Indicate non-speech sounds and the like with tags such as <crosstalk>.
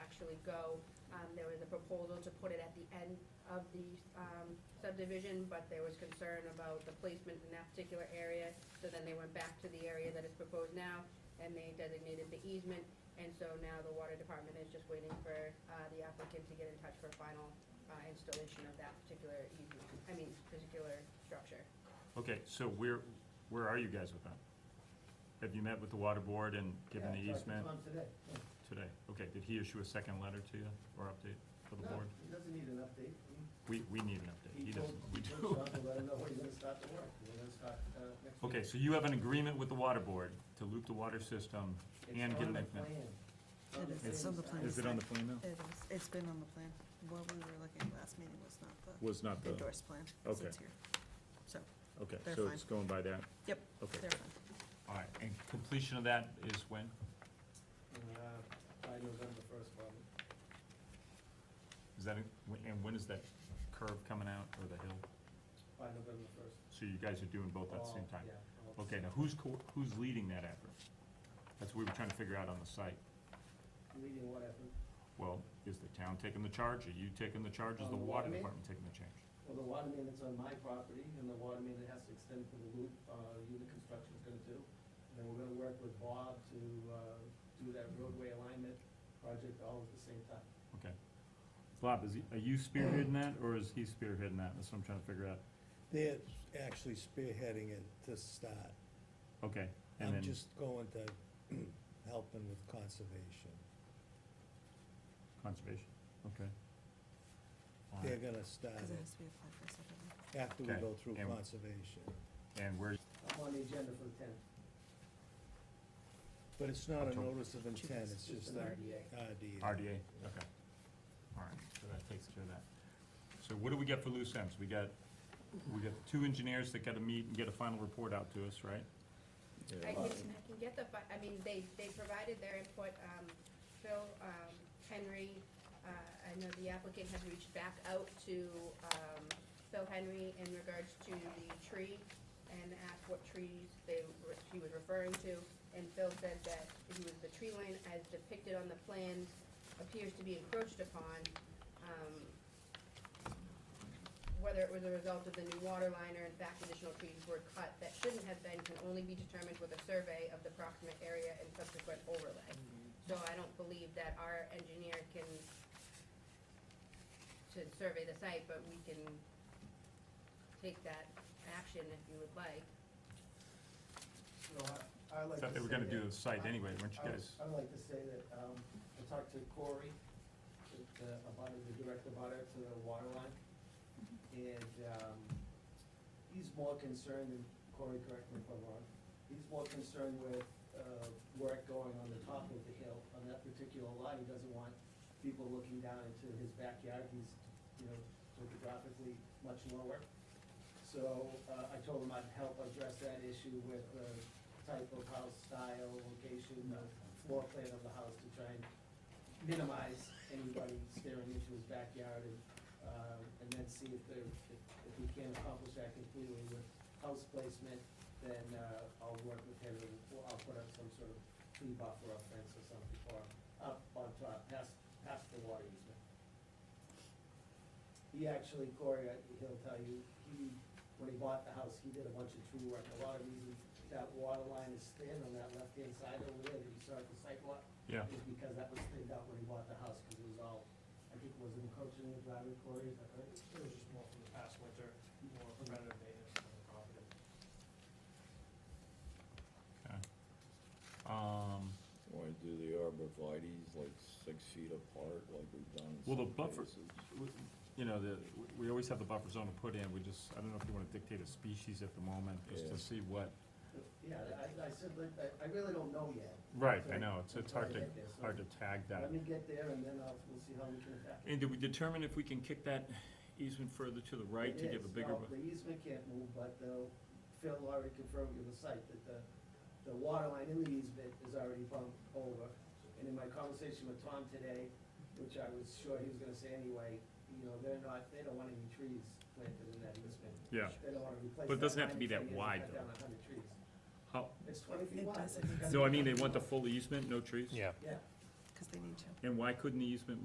really go. Um, There was a proposal to put it at the end of the um, subdivision, but there was concern about the placement in that particular area. So then they went back to the area that is proposed now, and they designated the easement. And so now the water department is just waiting for uh, the applicant to get in touch for final uh, installation of that particular easement, I mean, particular structure. Okay, so where, where are you guys with that? Have you met with the water board and given the Yeah, it's easement on today. Yeah. today? Okay, did he issue a second letter to you or update for the No, board? He doesn't need an update. We, we need an update. He told- doesn't. He uh, told Sean to let him know when he's gonna start the work. We're gonna start, uh, next <laughs> week. Okay, so you have an agreement with the water board to loop the water system and It's get an. on the plan. It is. It's on the plan. Is it on the plan now? It is, it's been on the plan. What we were looking at last meeting was not the. Was not the- Endorsed plan, 'cause Okay. it's here. So, Okay, They're so fine. it's going by that. yep, Okay. they're fine. All right, and completion of that is when? Uh, By November first, probably. Is that, in- and when is that curve coming out or the hill? By November first. So you guys are doing both at the same time? Yeah. all at the Okay, same now who's, co- who's leading that effort? That's what we were trying to figure out on the site. time. Leading what happened? Well, is the town taking the charge, are you taking the charge, is the On the Oh, water water main? department taking the charge? Well, the water main that's on my property, and the water main that has to extend to the loop, uh, unit construction's gonna do. And then we're gonna work with Bob to, uh, do that roadway alignment project all at the same time. Okay. Bob, is, he- are you <clears throat> spearheading that, or is he spearheading that, that's what I'm trying to figure out. They're actually spearheading it to start. Okay, and I'm then, just going to <clears throat> help them with conservation. conservation, okay. All They're right. gonna start Because it it has to be applied for separately. after we go Okay, through and- conservation. And where, I'm on the agenda for the tenth. But it's not a Okay. notice of intent, it's Just just an a RDA. RDA. RDA, okay. All right, so that takes care of that. So what do we get for loose ends? We got, we got two engineers that gotta meet and get a final report out to us, right? I can, I can get the, fi- I mean, they, they provided their input, um, Phil, um, Henry, uh, I know the applicant has reached back out to, um, Phil Henry in regards to the tree and asked what trees they, were- he was referring to, and Phil said that he was, the tree line as depicted on the plans appears to be encroached upon, um, whether it was a result of the new water line or in fact additional trees were cut that shouldn't have been can only be determined with a survey of the proximate area and subsequent overlay. So I don't believe that our engineer can, should survey the site, but we can take that action if you would like. No, I, I like to Thought they were say gonna that- do the site anyway, weren't you I would- guys? I would like to say that, um, I talked to Corey, the- the- about it, the director about it, to the water line. And, um, he's more concerned, and Corey, correct me if I'm wrong, he's more concerned with, uh, work going on the top of the hill, on that particular lot, he doesn't want people looking down into his backyard, he's, you know, topographically much lower. So uh, I told him I'd help address that issue with uh, the type of house, style, location, the floor plan of the house to try and minimize anybody staring into his backyard and, uh, and then see if there, if- if we can accomplish that completely with house placement, then uh, I'll work with him and we'll- I'll put up some sort of tree buffer or fence or something for, up on top, past, past the water easement. He actually, Corey, I- he'll tell you, he, when he bought the house, he did a bunch of tree work. A lot of reasons that water line is thin on that left-hand side over there that you saw at the sidewalk. Yeah. Is because that was thinned out when he bought the house, because it was all, I think, was it encroaching the driveway, Corey, is that right? It was just more from the past winter, more preventative maintenance on the property. Okay. Um, Want to do the arborvitae's like six feet apart like we've done in Well, the some buffer- cases? w- you know, the, we always have the buffer zone to put in, we just, I don't know if you wanna dictate a species at the moment, just Yeah. to see what. Yeah, I, I said, like, I, I really don't know yet. Right, So I know, it's, it's until I hard to, get there. So hard to tag that. Let me get there and then I'll, we'll see how we can attack it. And did we determine if we can kick that easement further to the right to It give a is. bigger? Well, The easement can't move, but the, Phil already confirmed with the site that the, the water line in the easement is already bumped over. And in my conversation with Tom today, which I was sure he was gonna say anyway, you know, they're not, they don't want any trees planted in that easement. Yeah. They don't wanna replace. But it doesn't that have to be that 93 and wide, cut though. down 100 trees. How, It's twenty feet It wide. doesn't. That's gotta no, I be mean, they enough. want the full easement, no trees? Yeah. Because they need to. And why couldn't the easement